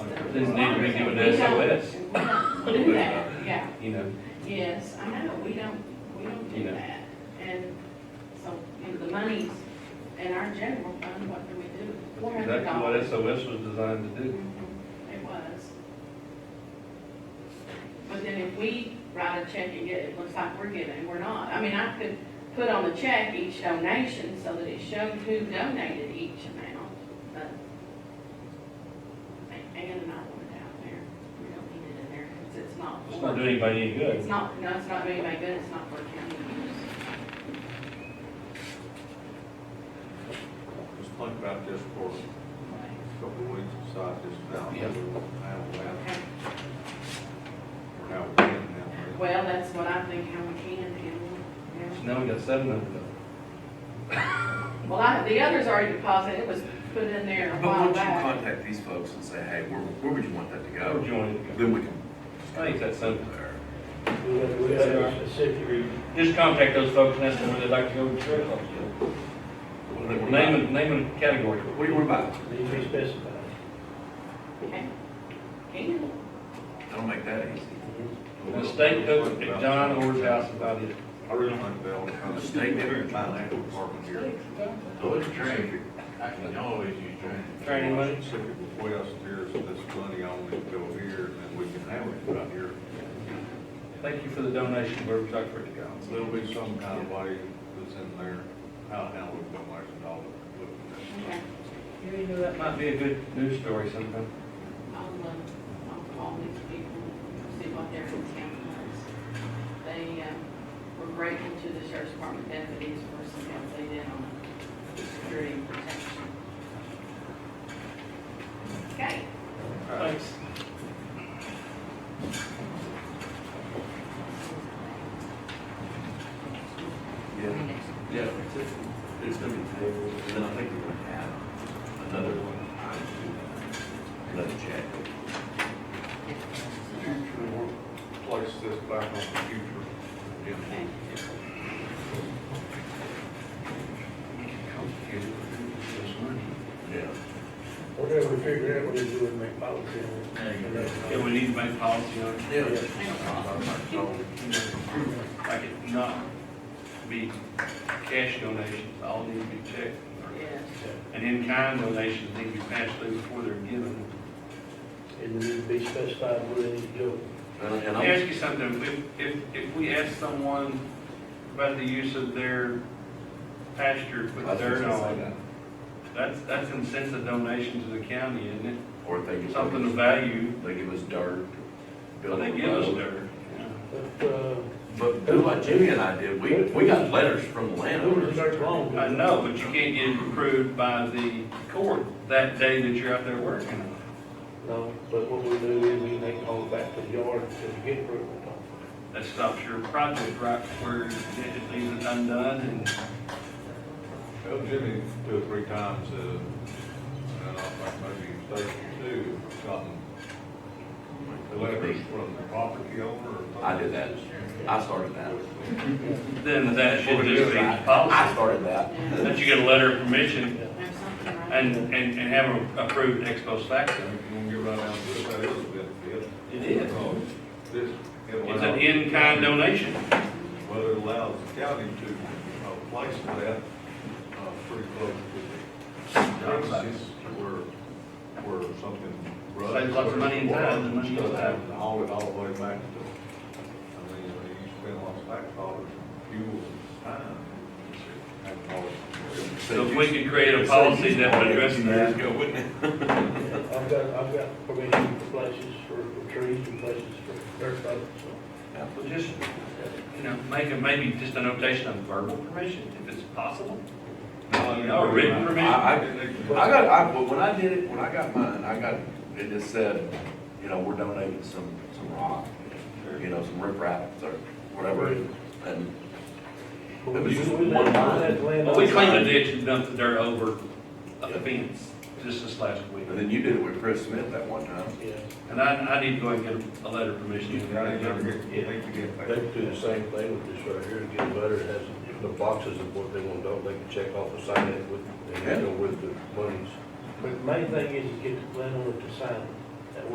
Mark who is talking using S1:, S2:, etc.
S1: These need to be given to SOS.
S2: We don't do that, yeah,
S1: You know,
S2: yes, I know, we don't, we don't do
S1: You know.
S2: that. And so, you know, the monies in our general fund, what do we do? Four
S1: that's
S2: hundred
S1: exactly what
S2: dollars.
S1: SOS was designed to do.
S2: It was. But then if we write a check and get, it looks like we're giving, we're not. I mean, I could put on the check each donation so that it showed who donated each amount, but A- Ann and I want it out there. We don't need it in there because it's not.
S1: It's
S2: for-
S1: not doing anybody any
S2: It's
S1: good.
S2: not, no, it's not doing anybody good, it's not for county use.
S3: Let's think about this for a couple of weeks, decide this now.
S1: Yeah.
S3: How we have,
S2: Okay.
S3: or how we can now.
S2: Well, that's what I think, how we can handle it. yeah.
S1: So now we got seven hundred dollars.
S2: Well, I, the other's already deposited, it was put in there a
S4: But
S2: while
S4: once you
S2: back.
S4: contact these folks and say, hey, where, where would you want that to
S1: How would
S4: go?
S1: you want it to go?
S4: Then we can.
S1: I think that's something.
S5: We have, we have a specific reason.
S1: Just contact those folks and ask them where they'd like to go to church. Name, and- name and category.
S4: What do you want to buy?
S5: Need to be specified.
S2: Okay. Can,
S4: That'll make that easy.
S1: The state took John Orr's house about it.
S3: I really think they'll kind of
S4: State different.
S3: financial department here.
S6: So it's training, I can always use training.
S1: Training money?
S3: Specific request, here's this money only to go here, and then we can handle it right here.
S1: Thank you for the donation, where would you like for it to go?
S3: There'll be some kind of way that's in there, how to handle it, don't waste a dollar.
S2: okay,
S1: Yeah, you know, that might be a good news story sometime.
S2: I'll, uh, I'll call these people, see what their intent was. They, uh, were grateful to the sheriff's department deputies for some help they did on security and protection. Okay,
S1: Thanks.
S4: Yeah, yeah, it's, it's gonna be tabled, and then I think we're gonna have another one. Another check.
S3: Future, we'll place this back on the future agenda.
S2: okay.
S4: Yeah.
S5: Whatever we figure out, we do and make policy. on it.
S1: Yeah, we need to make policy on it,
S4: Yeah.
S1: like it not be cash donations, all need to be checked.
S2: Yes,
S1: And in-kind donations need to be passed through before they're given.
S5: And we need to be specified where they need to go.
S4: And and
S1: Let me
S4: I'm,
S1: ask you something, if, if, if we ask someone about the use of their pasture with dirt on, that's, that's in a sense a donation to the county, isn't
S4: or if they
S1: it?
S4: give
S1: Something of
S4: us,
S1: value,
S4: they give us dirt. build
S1: they
S4: a
S1: give us
S4: road.
S1: dirt.
S5: But, uh,
S4: But do what Jimmy and I did, we, we got letters from the
S5: who
S4: landowners.
S5: does that belong to?
S1: I know, but you can't get it approved by the court that day that you're out there working.
S5: No, but what we do is we make all back to the yard until we get approval.
S1: That stops your project right where it leaves it undone and
S3: Well, Jimmy, two or three times, uh, and I think maybe Stacy too, gotten letters from the property owner. or-
S4: I did that. I started that.
S1: then that should just be
S4: I
S1: policy.
S4: started that.
S2: yeah,
S1: That you get a letter of permission
S2: there's something right.
S1: and, and, and have them approved ex post
S3: And
S1: facto.
S3: if you want to get right down to it, that is a benefit.
S1: It is.
S3: Uh, This. it
S1: It's an
S3: allows-
S1: in-kind donation.
S3: Well, it allows the county to, uh, place that, uh, pretty close to the places where, where something. runs.
S1: Saves lots of money in time and money in time.
S3: And Haul it all the way back to, I mean, you spend lots of tax dollars, fuel, and time. and all that.
S1: So if we could create a policy that would address
S4: Years
S1: that.
S4: ago, wouldn't it?
S5: I've got, I've got permission for places for for trees and places for dirt roads, so.
S1: Well, just, you know, make a, maybe just a notation of verbal permission, if it's possible. You know, written
S4: I,
S1: permission.
S4: I, I got, I, but when I did it, when I got mine, I got, it just said, you know, we're donating some, some rock, or, you know, some riprap, or whatever, and It was just one line.
S1: Well, we cleaned the ditch and dumped the dirt over a fence just this last week.
S4: and then you did it with Chris Smith that one time.
S5: Yeah.
S1: And I, I need to go and get a letter of permission.
S3: I never get, think you get back.
S7: They could do the same thing with this right here, to get a letter, that has the boxes of what they want to do, they can check off and sign it with, and handle with the monies.
S5: But the main thing is to get the landowner to sign it.